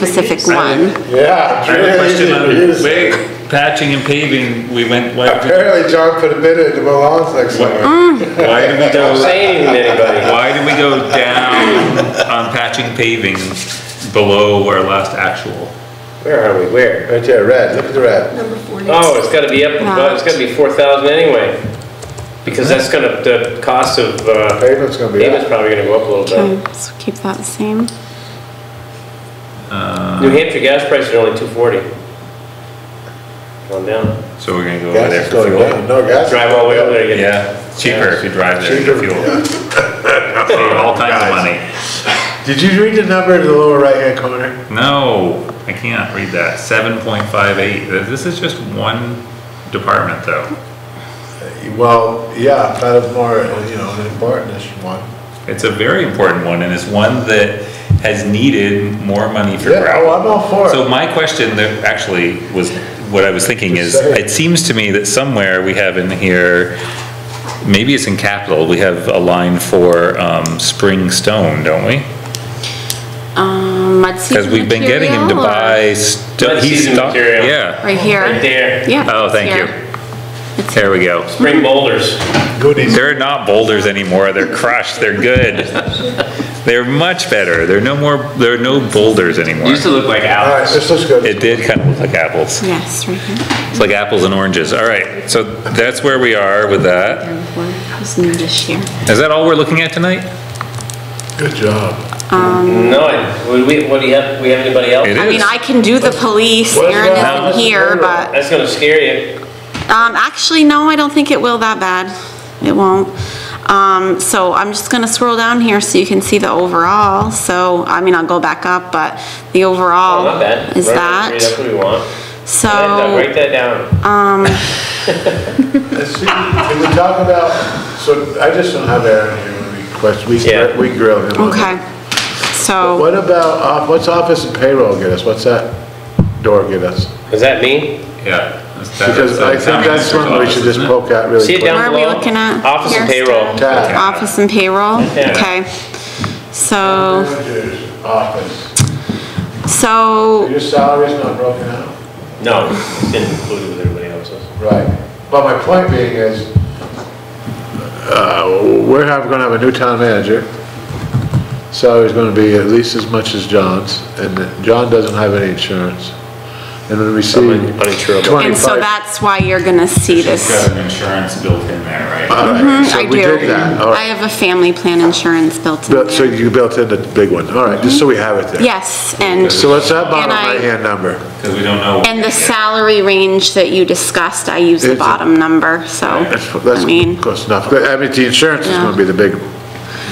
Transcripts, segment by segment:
specific one. I Yeah. have a question on it is. way patching and paving, we went, why, Apparently John put a bid in to Milan's next summer. why did we Don't go, say anything to anybody. why did we go down on patching paving below our last actual? Where are we, where? Right there, red, look at the red. Number 40. Oh, it's gotta be up, above. it's gotta be four thousand anyway, because that's gonna, the cost of, uh, Pavement's gonna be payment's up. probably gonna go up a little bit. Okay, so keep that the same. New Hampshire gas prices are only two forty. Going down. So we're gonna go over Gas there is for going down, fuel? no gas. is Drive all the way going over there, you get Yeah, it's cheaper if you drive there Cheaper, for fuel, for all kinds of money. down. Did you read the number in the lower right-hand corner? No, I can't read that, seven point five eight, this is just one department though. Well, yeah, kind of more, you know, an important-ish one. It's a very important one, and it's one that has needed more money for Yeah, oh, gravel. I'm all for it. So my question that actually was, what I was thinking is, Just say it. it seems to me that somewhere we have in here, maybe it's in capital, we have a line for, um, spring stone, don't we? Um, mud season Cause we've been getting him to material or- buy sto- Mud he's, season sto- material. yeah, Right right here. there. Yeah. oh, it's thank you. here. There we go. Spring boulders. Goodies. They're not boulders anymore, they're crushed, they're good. They're much better, they're no more, there are no boulders anymore. Used to look like All right, Alex. this looks good. It did kind of look like apples. Yes, right here. It's like apples and oranges. All right, so that's where we are with that. How's new this year? Is that all we're looking at tonight? Good job. No, I- would we, what do you have, we have anybody else? It I mean, is. I can do the police, What's Aaron that? isn't here, but, That's gonna scare you. um, actually, no, I don't think it will that bad. It won't. Um, so I'm just gonna scroll down here so you can see the overall, so, I mean, I'll go back up, but the Oh, not overall bad. is Right, right, That's that, Oh. what we want. so. Write that down. Let's see, can we talk about, so I just don't have Aaron here when we question, we Yeah. gr- we grill him. on Okay, it. so, What about, off- what's office and payroll get us? What's that door get us? Is that me? Yeah. that's- that- Because I that's the think that's town one we should just manager's poke at really See it quick. down where are below? we looking at? Office and Here, payroll. Scott? Tab. Office and payroll, Yeah. okay. So, Manager's Office. so, Your salary's not broken out? No, it's been included with everybody else's. Right. But my point being is, uh, we're have, gonna have a new town manager. Salary's gonna be at least as much as John's, and that- John doesn't have any insurance. And when we see Uninsurable. and so twenty-five. that's why you're gonna see office. It's this. Got an insurance built in there, right? All right, Mm-hmm, I so we do. did that, all I right. have a family plan insurance built in Built- So there. you built in the big one, all right, just so we have it there. Yes, and, So what's that bottom And I- right-hand number? Because we don't know. and the salary range that you discussed, I use the It's a- bottom number, so, That's, I mean, that's close enough. I mean, the insurance is Yeah. gonna be the big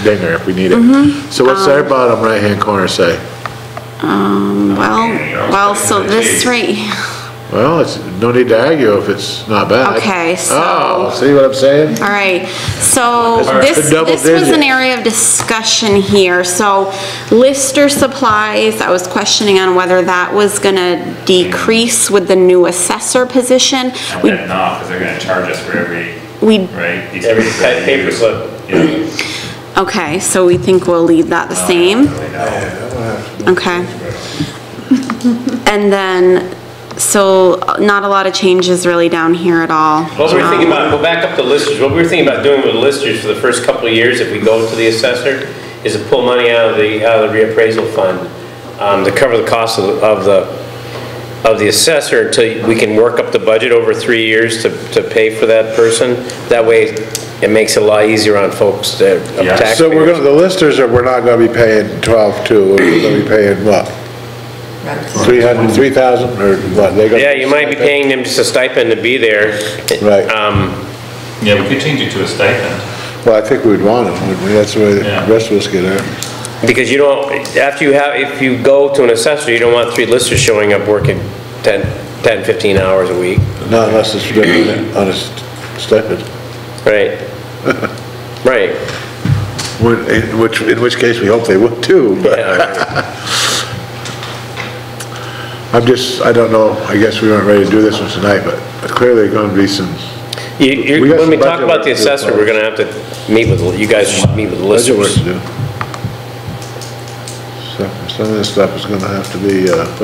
dinger if we need Mm-hmm. it. So Um, what's our bottom right-hand corner say? well, you're well, okay. so this Jeez. right, Well, it's, no need to argue if it's not bad. Okay, so- Oh, see what I'm saying? All right, so It's a this, double this was an digit. area of discussion here, so Lister supplies, I was questioning on whether that was gonna decrease with the new assessor position. And We, then not, because they're gonna charge us for every, we, right? piece of Every paper type we paper use. slip. Yeah. okay, so we think we'll leave that the same, okay? And then, so not a lot of changes really down here at all. What we were thinking about, go back up to listers, what we were thinking about doing with listers for the first couple of years, if we go to the assessor, is to pull money out of the, out of the reappraisal fund, um, to cover the cost of, of the, of the assessor until we can work up the budget over three years to, to pay for that person. That way, it makes it a lot easier on folks that, of Yeah. taxpayers. So we're gonna, the listers are, we're not gonna be paying twelve-two, we're gonna be paying what? Three hundred, three thousand, or what? They gonna- Yeah, you might be paying them just a stipend to be there. Right. Um, Yeah, we could change it to a stipend. Well, I think we'd want them, wouldn't we? That's the way the Yeah. rest of us get out. because you don't, after you have, if you go to an assessor, you don't want three listers showing up working 10, 10, 15 hours a week. Not unless it's written on a stipend, Right. Right. in which, in which case we hope they would too, but Yeah. I'm just, I don't know, I guess we weren't ready to do this one tonight, but clearly gonna be some You- you- We got When we some budget talk about the work to do, assessor, we're gonna have to meet with, you guys should meet with the budget work listers. to do. Stuff and Some of this stuff is gonna have to be, uh, put